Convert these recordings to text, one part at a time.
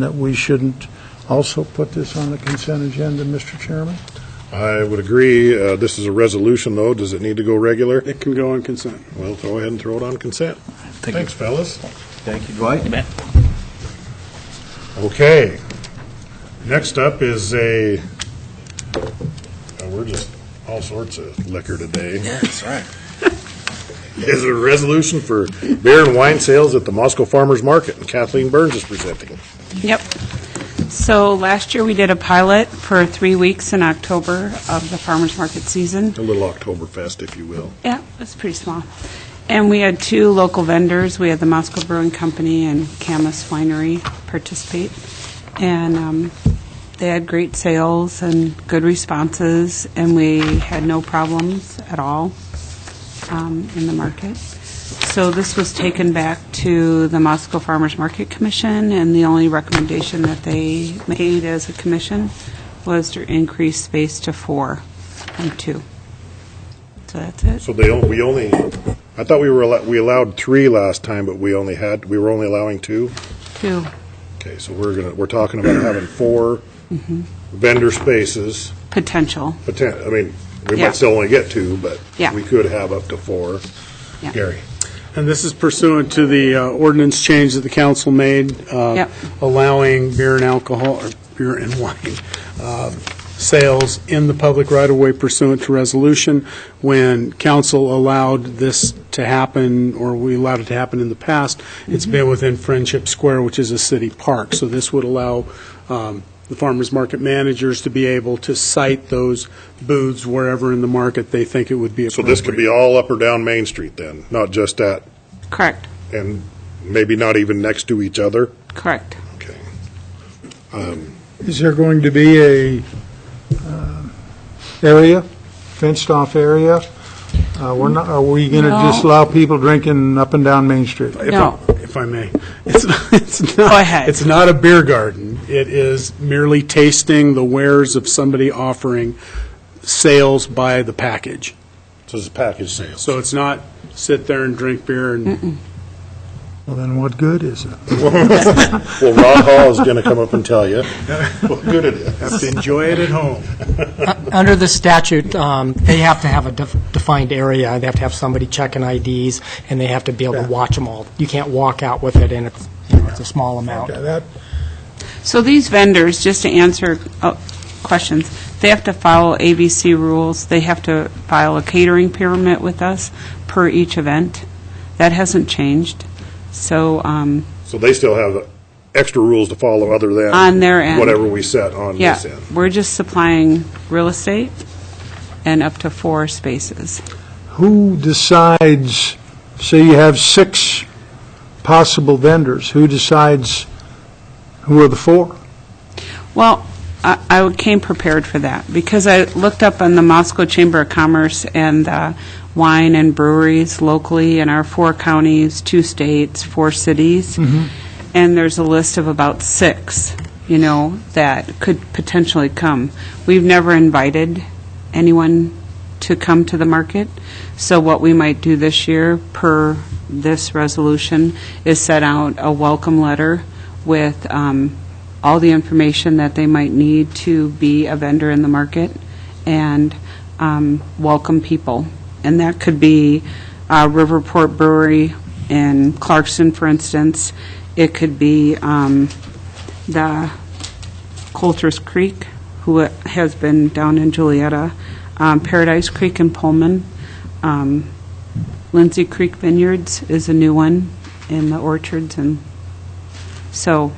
that we shouldn't also put this on the consent agenda, Mr. Chairman? I would agree. Uh, This is a resolution, though. Does it need to go regular? It can go on consent. Well, go ahead and throw it on consent. Thanks, fellas. Thank you, Dwight. Okay. Next up is a, uh, we're just all sorts of liquor today. Yeah, that's right. Is a resolution for beer and wine sales at the Moscow Farmers Market, and Kathleen Burns is presenting. Yep. So last year, we did a pilot for three weeks in October of the farmer's market season. A little Oktoberfest, if you will. Yeah, it was pretty small. And we had two local vendors. We had the Moscow Brewing Company and Camus Winery participate. And um, they had great sales and good responses, and we had no problems at all um, in the market. So this was taken back to the Moscow Farmers Market Commission, and the only recommendation that they made as a commission was to increase space to four from two. So that's it. So they, on- we only, I thought we were, allo- we allowed three last time, but we only had, we were only allowing two? Two. Okay, so we're gonna, we're talking about having four vendor spaces, Potential, poten- I mean, we Yeah. might still only get two, but Yeah. we could have up to four. Yeah. Gary? And this is pursuant to the uh, ordinance change that the council made. uh, Yep. Allowing beer and alcohol, or beer and wine, um, sales in the public right-of-way pursuant to resolution. When council allowed this to happen, or we allowed it to happen in the past, it's been within Friendship Square, which is a city park. So this would allow um, the farmers market managers to be able to site those booths wherever in the market they think it would be So appropriate. this could be all up or down Main Street then, not just at, correct, and maybe not even next to each other? correct. Okay. Is there going to be a uh, area, fenced-off area? Uh, We're not, are we going to No. just allow people drinking up and down Main Street? if No. I, if I may, it's not, it's not, Go ahead. It's not a beer garden. It is merely tasting the wares of somebody offering sales by the package. So it's package sales. So it's not sit there and drink beer and Well, then what good is it? Well, Ron Hall is gonna come up and tell you what good it is. have to enjoy it at home. Under the statute, um, they have to have a def- defined area, they have to have somebody checking IDs, and they have to be able to watch them all. You can't walk out with it, and it's, you know, it's a small amount. Yeah, that- So these vendors, just to answer uh, questions, they have to follow ABC rules. They have to file a catering pyramid with us per each event. That hasn't changed. So, um, So they still have extra rules to follow other than. On their end. Whatever we set on yeah, this end. we're just supplying real estate and up to four spaces. Who decides, say you have six possible vendors, who decides who are the four? Well, I I came prepared for that, because I looked up on the Moscow Chamber of Commerce and uh, wine and breweries locally in our four counties, two states, four cities, and there's a list of about six, you know, that could potentially come. We've never invited anyone to come to the market, so what we might do this year, per this resolution, is set out a welcome letter with um, all the information that they might need to be a vendor in the market and um, welcome people. And that could be uh, Riverport Brewery in Clarkson, for instance. It could be um, the Coulter's Creek, who has been down in Julietta, um, Paradise Creek in Pullman, um, Lindsay Creek Vineyards is a new one in the orchards, and so,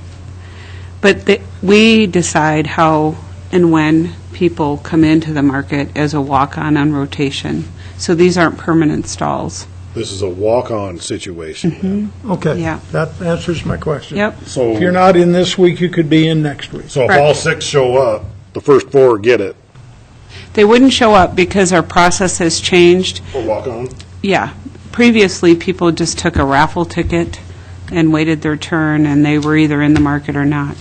but the- we decide how and when people come into the market as a walk-on on rotation. So these aren't permanent stalls. This is a walk-on Mm-hmm. situation. Okay. Yeah. That answers my question. Yep. So. If you're not in this week, you could be in next week. So if Correct. all six show up, the first four get it, They wouldn't show up because our process has changed. or walk on. Yeah. Previously, people just took a raffle ticket and waited their turn, and they were either in the market or not.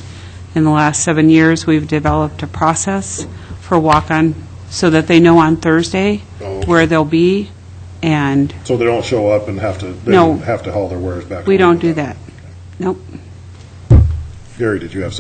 In the last seven years, we've developed a process for walk-on so that they know on Thursday Oh. where they'll be, and So they don't show up and have to, they No. have to haul their wares back. we home. don't do that. Nope. Gary, did you have something?